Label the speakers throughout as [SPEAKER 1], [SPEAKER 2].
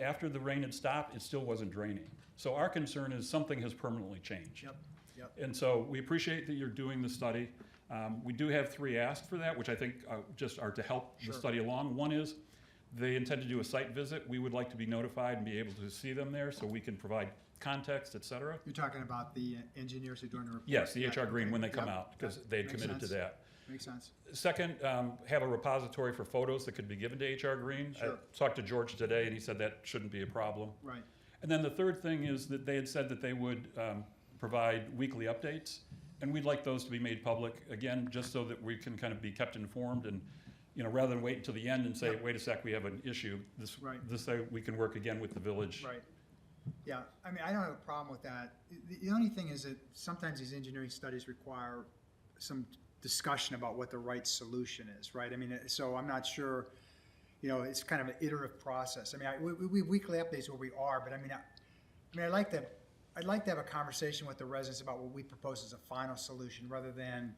[SPEAKER 1] after the rain had stopped, it still wasn't draining. So our concern is something has permanently changed.
[SPEAKER 2] Yep, yep.
[SPEAKER 1] And so we appreciate that you're doing the study. Um, we do have three asked for that, which I think uh, just are to help the
[SPEAKER 2] Sure.
[SPEAKER 1] study along. One is they intend to do a site visit. We would like to be notified and be able to see them there so we can provide context, et cetera.
[SPEAKER 2] You're talking about the uh, engineers who are doing the report?
[SPEAKER 1] Yes, the
[SPEAKER 2] Yeah,
[SPEAKER 1] HR Green, when they
[SPEAKER 2] okay,
[SPEAKER 1] come
[SPEAKER 2] yep,
[SPEAKER 1] out, because
[SPEAKER 2] yep,
[SPEAKER 1] they had
[SPEAKER 2] makes
[SPEAKER 1] committed to
[SPEAKER 2] sense,
[SPEAKER 1] that.
[SPEAKER 2] Makes sense.
[SPEAKER 1] Second, um, have a repository for photos that could be given to HR Green. I
[SPEAKER 2] Sure.
[SPEAKER 1] Talked to George today, and he said that shouldn't be a problem.
[SPEAKER 2] Right,
[SPEAKER 1] And then the third thing is that they had said that they would um, provide weekly updates, and we'd like those to be made public, again, just so that we can kind of be kept informed and, you know, rather than wait until the end and say,
[SPEAKER 2] Yeah.
[SPEAKER 1] wait a sec, we have an issue, this,
[SPEAKER 2] Right.
[SPEAKER 1] this, way we can work again with the village.
[SPEAKER 2] right. Yeah, I mean, I don't have a problem with that. The, the only thing is that sometimes these engineering studies require some discussion about what the right solution is, right? I mean, uh, so I'm not sure, you know, it's kind of an iterative process. I mean, I, we, we- we, weekly updates where we are, but I mean, I, I mean, I'd like to, I'd like to have a conversation with the residents about what we propose as a final solution, rather than,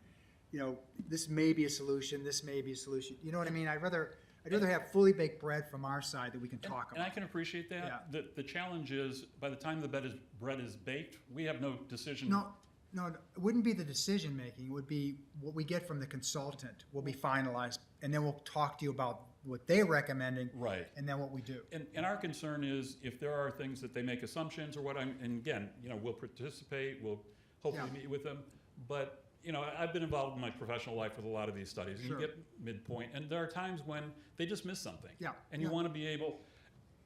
[SPEAKER 2] you know, this may be a solution, this may be a solution, you know what I mean? I'd rather, I'd rather have fully baked bread from our side that we can
[SPEAKER 1] And-
[SPEAKER 2] talk
[SPEAKER 1] And I
[SPEAKER 2] about.
[SPEAKER 1] can appreciate that. The, the challenge is, by the time the bread is, bread is baked, we have no decision.
[SPEAKER 2] No, no, it wouldn't be the decision making, it would be what we get from the consultant will be finalized, and then we'll talk to you about what they're recommending.
[SPEAKER 1] Right.
[SPEAKER 2] And then what we do.
[SPEAKER 1] And, and our concern is if there are things that they make assumptions or what I'm, and again, you know, we'll participate, we'll hopefully
[SPEAKER 2] Yeah.
[SPEAKER 1] meet with them. But, you know, I- I've been involved in my professional life with a lot of these studies. and You
[SPEAKER 2] Sure.
[SPEAKER 1] get midpoint, and there are times when they just miss something.
[SPEAKER 2] Yeah,
[SPEAKER 1] And you
[SPEAKER 2] yeah.
[SPEAKER 1] want to be able,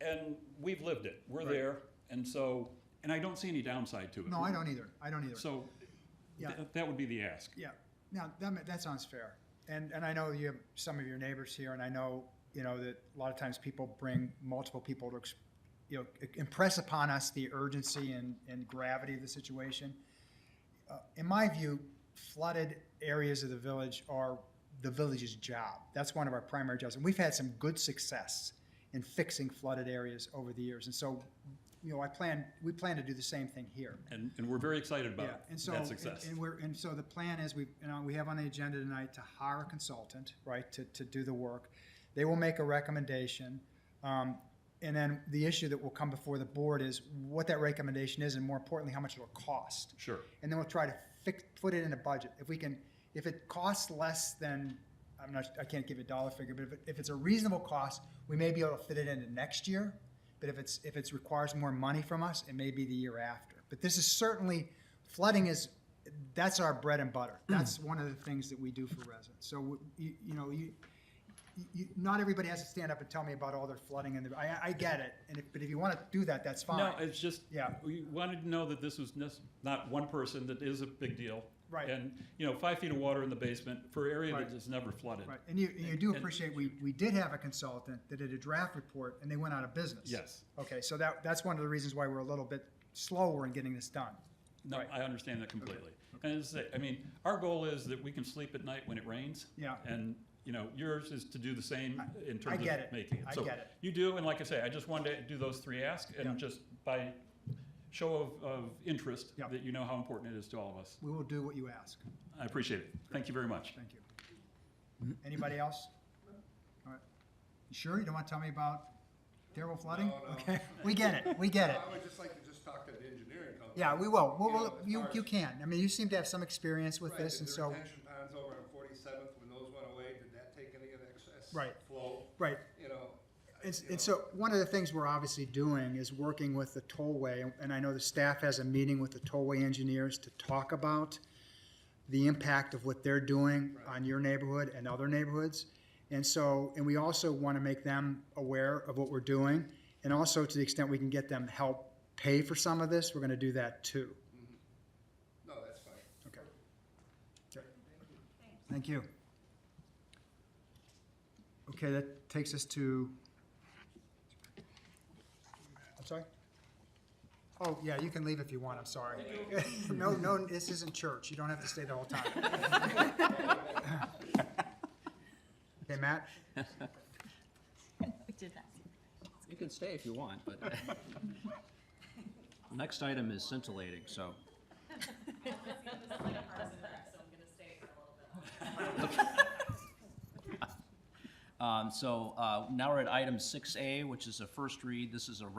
[SPEAKER 1] and we've lived it, we're
[SPEAKER 2] Right.
[SPEAKER 1] there, and so, and I don't see any downside to it.
[SPEAKER 2] No, I don't either, I don't either.
[SPEAKER 1] So,
[SPEAKER 2] Yeah.
[SPEAKER 1] th- that would be the ask.
[SPEAKER 2] Yeah, now, that, ma- that sounds fair. And, and I know you have some of your neighbors here, and I know, you know, that a lot of times people bring multiple people to, ex- you know, i- impress upon us the urgency and, and gravity of the situation. Uh, In my view, flooded areas of the village are the village's job. That's one of our primary jobs, and we've had some good success in fixing flooded areas over the years. And so, you know, I plan, we plan to do the same thing here.
[SPEAKER 1] And, and we're very excited
[SPEAKER 2] Yeah,
[SPEAKER 1] about
[SPEAKER 2] and so,
[SPEAKER 1] that
[SPEAKER 2] and-
[SPEAKER 1] success.
[SPEAKER 2] and we're, and so the plan is, we, you know, we have on the agenda tonight to hire a consultant, right, to, to do the work. They will make a recommendation, um, and then the issue that will come before the board is what that recommendation is, and more importantly, how much it'll cost.
[SPEAKER 1] Sure.
[SPEAKER 2] And then we'll try to fix, put it in a budget. If we can, if it costs less than, I'm not, I can't give you a dollar figure, but if, it- if it's a reasonable cost, we may be able to fit it into next year. But if it's, if it's requires more money from us, it may be the year after. But this is certainly, flooding is, that's our bread and butter. That's one of the things that we do for residents. So, w- you, you know, you, you, not everybody has to stand up and tell me about all their flooding and the, I, I get it. And if, but if you want to do that, that's fine.
[SPEAKER 1] No, it's just,
[SPEAKER 2] Yeah.
[SPEAKER 1] we wanted to know that this was nes- not one person, that is a big deal.
[SPEAKER 2] Right.
[SPEAKER 1] And, you know, five feet of water in the basement for an area
[SPEAKER 2] Right.
[SPEAKER 1] that is never flooded.
[SPEAKER 2] Right, and you, and you do
[SPEAKER 1] And-
[SPEAKER 2] appreciate, we, we did have a consultant that did a draft report and they went out of business.
[SPEAKER 1] Yes.
[SPEAKER 2] Okay, so that, that's one of the reasons why we're a little bit slower in getting this done.
[SPEAKER 1] No,
[SPEAKER 2] Right.
[SPEAKER 1] I understand that completely. And as I say, I mean, our goal is that we can sleep at night when it rains.
[SPEAKER 2] Yeah.
[SPEAKER 1] And, you know, yours is to do the same in
[SPEAKER 2] I
[SPEAKER 1] terms
[SPEAKER 2] get
[SPEAKER 1] of
[SPEAKER 2] it.
[SPEAKER 1] making it.
[SPEAKER 2] I
[SPEAKER 1] So
[SPEAKER 2] get it.
[SPEAKER 1] You do, and like I say, I just wanted to do those three asks
[SPEAKER 2] Yeah.
[SPEAKER 1] and just by show of, of interest,
[SPEAKER 2] Yeah.
[SPEAKER 1] that you know how important it is to all of us.
[SPEAKER 2] We will do what you ask.
[SPEAKER 1] I appreciate it. Thank you very much.
[SPEAKER 2] Thank you. Anybody else? All right. You Sure, you don't want to tell me about terrible flooding?
[SPEAKER 3] No, no.
[SPEAKER 2] Okay, we get it, we get it.
[SPEAKER 3] I would just like to just talk to the engineering company.
[SPEAKER 2] Yeah, we will. We'll-
[SPEAKER 3] You know,
[SPEAKER 2] we'll-
[SPEAKER 3] as
[SPEAKER 2] you,
[SPEAKER 3] far as-
[SPEAKER 2] you can. I mean, you seem to have some experience with
[SPEAKER 3] Right,
[SPEAKER 2] this
[SPEAKER 3] did
[SPEAKER 2] and
[SPEAKER 3] the
[SPEAKER 2] so,
[SPEAKER 3] retention ponds over on Forty-seventh, when those went away, did that take any of the excess
[SPEAKER 2] Right.
[SPEAKER 3] flow?
[SPEAKER 2] right.
[SPEAKER 3] You know.
[SPEAKER 2] And,
[SPEAKER 3] you know,
[SPEAKER 2] and so, one of the things we're obviously doing is working with the tollway, and- and I know the staff has a meeting with the tollway engineers to talk about the impact of what they're doing on your neighborhood and other neighborhoods. And so, and we also want to make them aware of what we're doing, and also to the extent we can get them help pay for some of this, we're going to do that too.
[SPEAKER 3] No, that's fine.
[SPEAKER 2] Okay. Okay. Thank you. Okay, that takes us to, I'm sorry? Oh, yeah, you can leave if you want, I'm sorry. No, no, this isn't church, you don't have to stay the whole time. Okay, Matt?
[SPEAKER 4] We did not see
[SPEAKER 5] You can stay if you want, but. Next item is scintillating, so.
[SPEAKER 4] that.
[SPEAKER 5] Um, So uh, now we're at item 6A, which is a first read. This is a